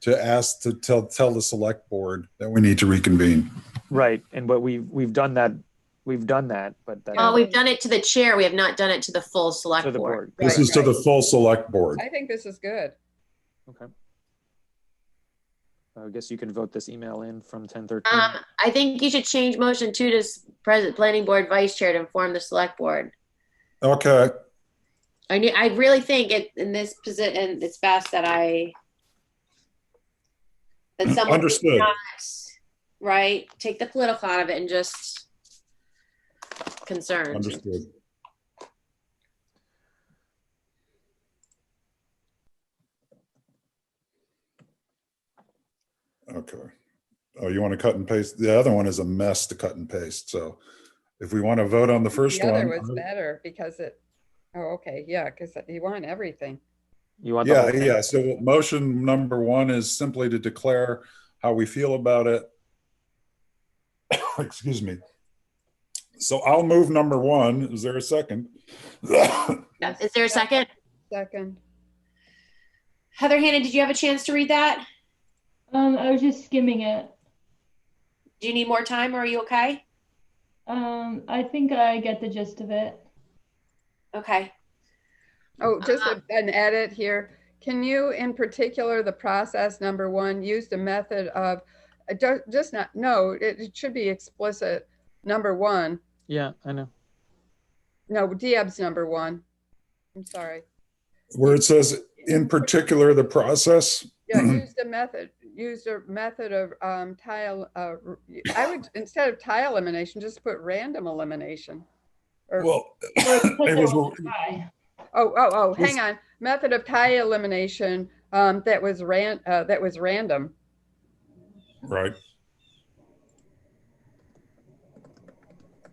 to ask, to tell, tell the select board that we need to reconvene. Right, and but we, we've done that, we've done that, but that. Well, Uh, we've done it to the chair. We have not done it to the full select To the board. board. This is to the full select board. I think this is good. Okay. I guess you can vote this email in from ten thirteen. Um, I think you should change motion two to s- president, planning board, vice chair to inform the select board. Okay, I knew, I really think it, in this position, it's best that I. That someone. who's Understood. not, Right, take the political out of it and just. Concerns. understood. Okay. Oh, you want to cut and paste? The other one is a mess to cut and paste, so if we want to vote on the first The other one. was better because it, oh, okay, yeah, because you want everything. You want the whole Yeah, thing? yeah, so motion number one is simply to declare how we feel about it. Excuse me. So I'll move number one. Is there a second? Yeah. Is there a second? Second, Heather Hannah, did you have a chance to read that? Um, I was just skimming it. Do you need more time or are you okay? Um, I think I get the gist of it. Okay. oh, just a- an edit here. Can you, in particular, the process number one, use the method of, uh, don't- just not, no, it it should be explicit. Number one, Yeah, I know. no, Dieb's number one. I'm sorry. Where it says, in particular, the process, Yeah, used a method, used a method of um, tile, uh, r- I would, instead of tile elimination, just put random elimination. Or, oh, well, it was, Bye. oh, oh, was- hang on, method of tile elimination um, that was ran, uh, that was random. right.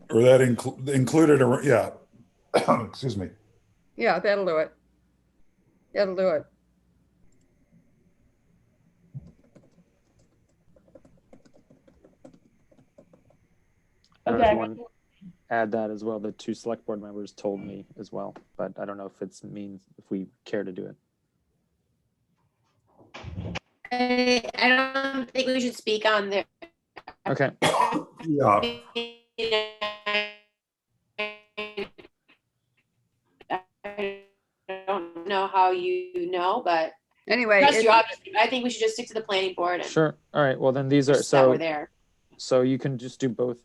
Or that inclu- included, a yeah. Excuse me. Yeah, that'll do it. That'll do it. I don't know if Okay. you want to add that as well. The two select board members told me as well, but I don't know if it's means if we care to do it. I, I don't think we should speak on there. Okay, Yeah, I don't know how you know, but Anyway, trust you, it- obviously, I think we should just stick to the planning board and sure. All right. Well, then these are just that we're so there. so you can just do both.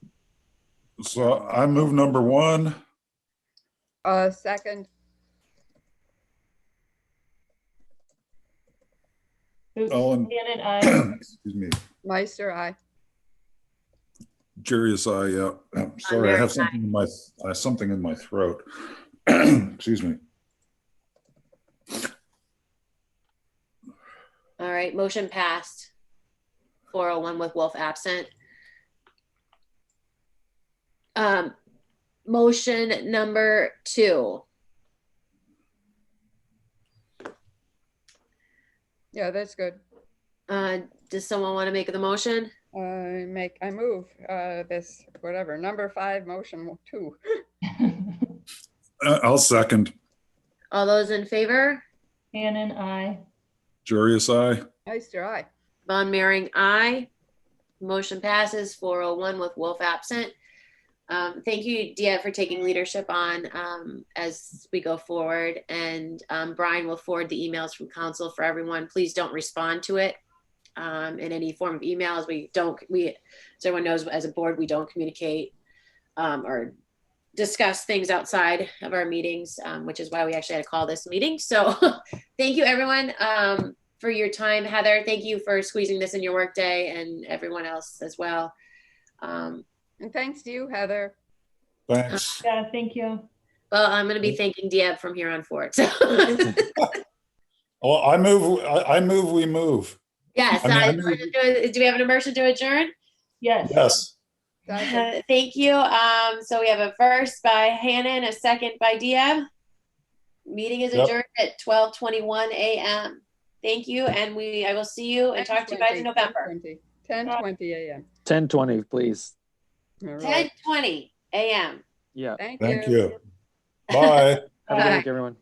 so I move number one. uh, second, Oops. All in- Janet, I, Excuse me. Meister, I, Jurius, I, uh, I'm sorry, I have very something in my, I have something in my throat. Excuse me. All right, motion passed. Four oh one with Wolf absent. Um, motion number two. yeah, that's good. Uh, does someone want to make the motion? I make, I move uh, this, whatever, number five, motion two. Uh, I'll second. All those in favor? Shannon, I, Jurius, I, Meister, I. Von Mering, aye. Motion passes four oh one with Wolf absent. Um, thank you, Dia, for taking leadership on, um, as we go forward. And, um, Brian will forward the emails from council for everyone. Please don't respond to it. Um, in any form of emails, we don't, we, so everyone knows, as a board, we don't communicate, um, or discuss things outside of our meetings, um, which is why we actually had to call this meeting. So, thank you, everyone. Um, for your time, Heather. Thank you for squeezing this in your workday and everyone else as well. Um, And thanks to you, Heather. thanks. yeah, thank you. well, I'm going to be thanking Diab from here on forward. So, Well, I move, I, I move, we move. yes, I mean, I I- know- do we have an immersion to adjourn? Yes. Yes, Second. Uh, thank you. Um, so we have a first by Hannah and a second by Diab. Meeting is Yep. adjourned at 12:21 a.m. Thank you, and we I will see you and talk to you guys in November. 10 20 a.m. Ten twenty, please. All right. 10:20 a.m. Yeah. Thank thank you. you. Bye. Have a good Bye. week, everyone.